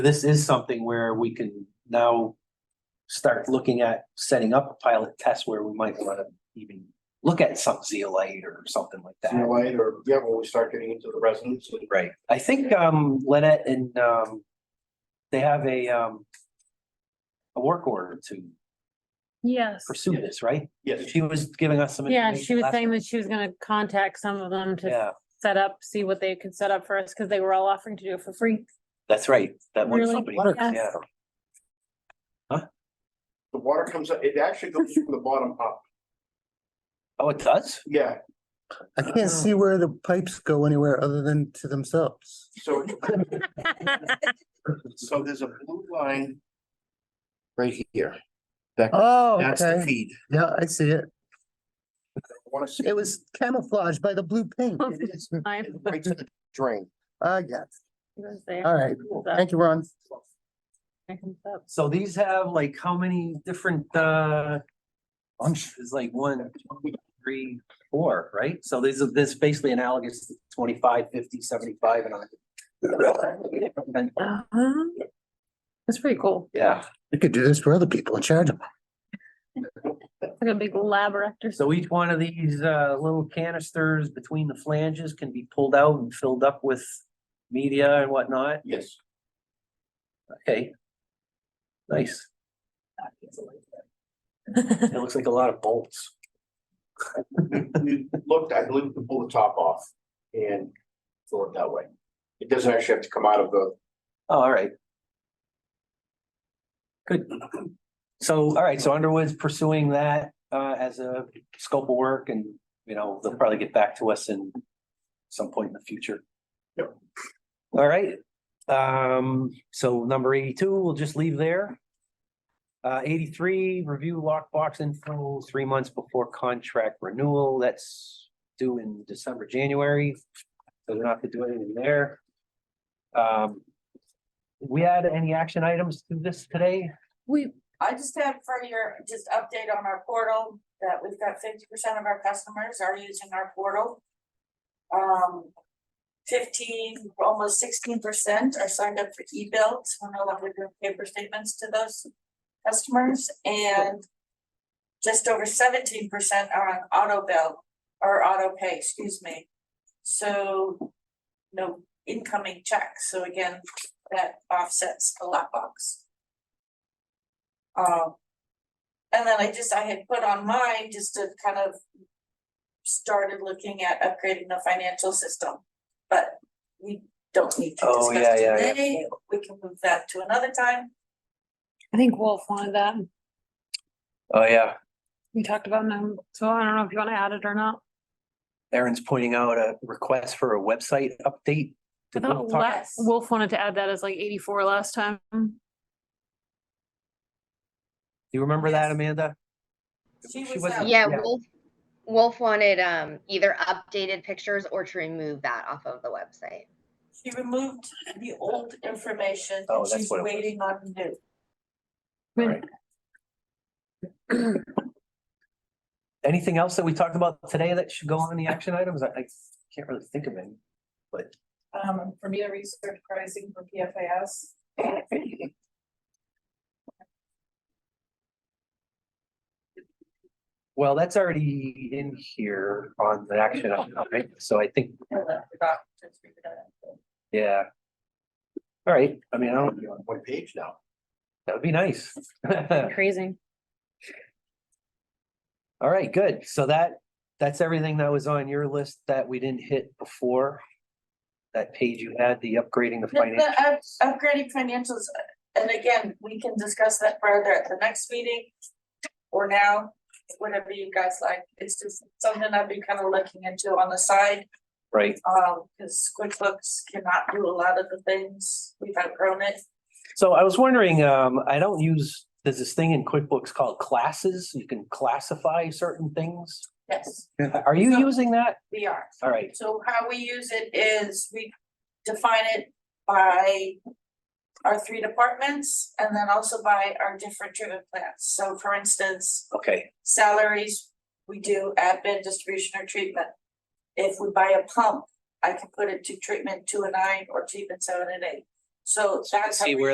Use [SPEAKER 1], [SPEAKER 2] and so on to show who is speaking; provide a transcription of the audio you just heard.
[SPEAKER 1] this is something where we can now start looking at setting up a pilot test where we might want to even look at some zeolite or something like
[SPEAKER 2] See you
[SPEAKER 1] that.
[SPEAKER 2] later, or, yeah, when we start getting into the residents. and-
[SPEAKER 1] Right. I think, um, Lynette and, um, they have a, um, a work order to
[SPEAKER 3] Yes,
[SPEAKER 1] pursue this, right?
[SPEAKER 2] Yes,
[SPEAKER 1] She was giving us some.
[SPEAKER 3] yeah,
[SPEAKER 1] information
[SPEAKER 3] she was
[SPEAKER 1] last-
[SPEAKER 3] saying that she was gonna contact some of them to
[SPEAKER 1] Yeah,
[SPEAKER 3] set up, see what they could set up for us, because they were all offering to do it for free.
[SPEAKER 1] that's right. That one
[SPEAKER 3] Really?
[SPEAKER 1] company, yeah.
[SPEAKER 3] Yes.
[SPEAKER 2] the water comes up, it actually goes from the bottom up,
[SPEAKER 1] Oh, it does?
[SPEAKER 2] yeah,
[SPEAKER 4] I can't see where the pipes go anywhere other than to themselves.
[SPEAKER 2] so, so there's a blue line. Right here,
[SPEAKER 4] Oh,
[SPEAKER 2] that's the
[SPEAKER 4] okay.
[SPEAKER 2] feed.
[SPEAKER 4] Yeah, I see it.
[SPEAKER 2] I Wanna see
[SPEAKER 4] It was camouflaged by the blue paint.
[SPEAKER 3] It I
[SPEAKER 2] it right to the drain.
[SPEAKER 4] I got it.
[SPEAKER 3] was there.
[SPEAKER 4] All right.
[SPEAKER 3] So,
[SPEAKER 4] Uh, Thank you, Ron.
[SPEAKER 3] I can set up.
[SPEAKER 1] So these have like how many different, uh,
[SPEAKER 4] Bunch.
[SPEAKER 1] It's like one, two, three, four, right? So this is, this is basically analogous to 25, 50, 75, and on. And,
[SPEAKER 3] Uh-huh. That's pretty cool.
[SPEAKER 1] Yeah,
[SPEAKER 4] You could do this for other people and charge them.
[SPEAKER 3] It's like a big lab rector.
[SPEAKER 1] so each one of these, uh, little canisters between the flanges can be pulled out and filled up with media and whatnot.
[SPEAKER 2] Yes,
[SPEAKER 1] Okay. Nice. It looks like a lot of bolts.
[SPEAKER 2] we we looked, I believe, to pull the top off and fill it that way. It doesn't actually have to come out of the,
[SPEAKER 1] Oh, All right. Good. So, all right, so Underwood's pursuing that uh as a scope of work and, you know, they'll probably get back to us in some point in the future.
[SPEAKER 2] Yep.
[SPEAKER 1] All right, um, so number eighty-two, we'll just leave there. Uh, eighty-three, review lockbox info three months before contract renewal, that's due in December, January. So they're not gonna do anything there. Um, we had any action items to this today?
[SPEAKER 3] We,
[SPEAKER 5] I just have for your, just update on our portal, that we've got fifty percent of our customers are using our portal. Um, fifteen, almost sixteen percent are signed up for e-bills, we're no longer doing paper statements to those customers, and just over seventeen percent are on auto bill, or auto pay, excuse me. So, no incoming checks, so again, that offsets the lockbox. Um. And then I just, I had put on mine just to kind of. Started looking at upgrading the financial system, but we don't need to
[SPEAKER 1] Oh, yeah,
[SPEAKER 5] discuss
[SPEAKER 1] yeah, yeah.
[SPEAKER 5] today, we can move that to another time.
[SPEAKER 3] I think Wolf wanted that.
[SPEAKER 1] Oh, yeah.
[SPEAKER 3] We talked about them, so I don't know if you want to add it or not.
[SPEAKER 1] Aaron's pointing out a request for a website update.
[SPEAKER 3] I
[SPEAKER 1] Did we
[SPEAKER 3] thought
[SPEAKER 1] talk-
[SPEAKER 3] La- Wolf wanted to add that as like eighty-four last time.
[SPEAKER 1] Do you remember that,
[SPEAKER 5] Yes.
[SPEAKER 1] Amanda?
[SPEAKER 5] She
[SPEAKER 1] She
[SPEAKER 5] was
[SPEAKER 1] wasn't-
[SPEAKER 5] out.
[SPEAKER 6] Yeah,
[SPEAKER 1] Yeah.
[SPEAKER 6] Wolf, Wolf wanted um either updated pictures or to remove that off of the website.
[SPEAKER 5] She removed the old information
[SPEAKER 1] Oh,
[SPEAKER 5] and
[SPEAKER 1] that's
[SPEAKER 5] she's
[SPEAKER 1] what it was.
[SPEAKER 5] waiting on new.
[SPEAKER 1] Right. Anything else that we talked about today that should go on the action items? I, I can't really think of any.
[SPEAKER 5] Um, for me to research pricing for PFAS.
[SPEAKER 1] Well, that's already in here on the action item, right? So I think,
[SPEAKER 5] I forgot to speak to that.
[SPEAKER 1] yeah. All right, I mean, I don't,
[SPEAKER 2] you're on one page now.
[SPEAKER 1] that would be nice.
[SPEAKER 3] Crazy.
[SPEAKER 1] All right, good. So that, that's everything that was on your list that we didn't hit before. That page you had, the upgrading the
[SPEAKER 5] The-
[SPEAKER 1] finance.
[SPEAKER 5] the up- upgrading financials, and again, we can discuss that further at the next meeting. Or now, whatever you guys like, it's just something I've been kind of looking into on the side,
[SPEAKER 1] Right,
[SPEAKER 5] um, because QuickBooks cannot do a lot of the things, we've outgrown it.
[SPEAKER 1] so I was wondering, um, I don't use, there's this thing in QuickBooks called classes, you can classify certain things.
[SPEAKER 5] Yes,
[SPEAKER 1] Are you
[SPEAKER 5] No.
[SPEAKER 1] using that?
[SPEAKER 5] we are.
[SPEAKER 1] All right,
[SPEAKER 5] So how we use it is we define it by our three departments and then also by our different treatment plans. So for instance,
[SPEAKER 1] okay,
[SPEAKER 5] salaries, we do admin, distribution or treatment. If we buy a pump, I can put it to treatment two and nine or treatment seven and eight. So
[SPEAKER 1] So you can
[SPEAKER 5] that's how
[SPEAKER 1] see
[SPEAKER 5] we
[SPEAKER 1] where